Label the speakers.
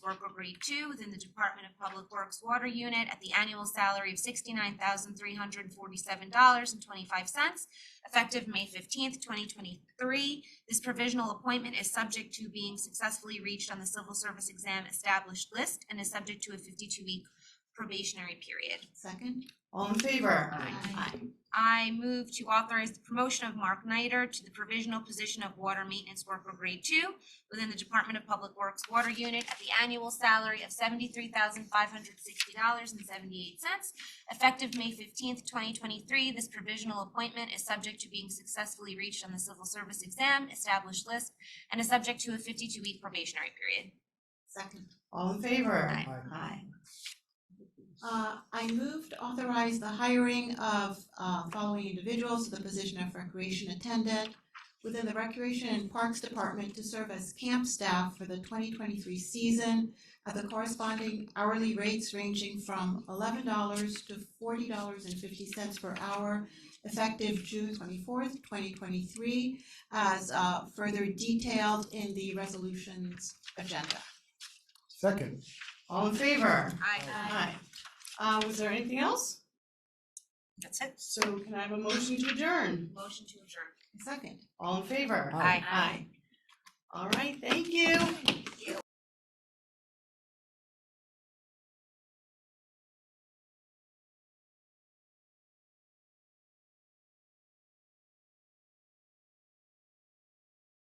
Speaker 1: grade two within the Department of Public Works Water Unit at the annual salary of sixty-nine thousand three hundred and forty-seven dollars and twenty-five cents, effective May fifteenth, twenty twenty-three. This provisional appointment is subject to being successfully reached on the civil service exam established list and is subject to a fifty-two week probationary period.
Speaker 2: Second?
Speaker 3: All in favor?
Speaker 2: Aye.
Speaker 1: I move to authorize the promotion of Mark Nider to the provisional position of water maintenance worker grade two within the Department of Public Works Water Unit at the annual salary of seventy-three thousand five hundred sixty dollars and seventy-eight cents. Effective May fifteenth, twenty twenty-three, this provisional appointment is subject to being successfully reached on the civil service exam established list and is subject to a fifty-two week probationary period.
Speaker 2: Second?
Speaker 3: All in favor?
Speaker 1: Aye.
Speaker 2: Aye. Uh, I moved authorize the hiring of, uh, following individuals to the position of recreation attendant within the Recreation and Parks Department to serve as camp staff for the twenty twenty-three season at the corresponding hourly rates ranging from eleven dollars to forty dollars and fifty cents per hour effective June twenty-fourth, twenty twenty-three, as, uh, further detailed in the resolutions agenda.
Speaker 4: Second,
Speaker 3: All in favor?
Speaker 1: Aye.
Speaker 3: Aye. Uh, was there anything else?
Speaker 1: That's it.
Speaker 3: So can I have a motion to adjourn?
Speaker 1: Motion to adjourn.
Speaker 2: Second?
Speaker 3: All in favor?
Speaker 4: Aye.
Speaker 3: All right, thank you.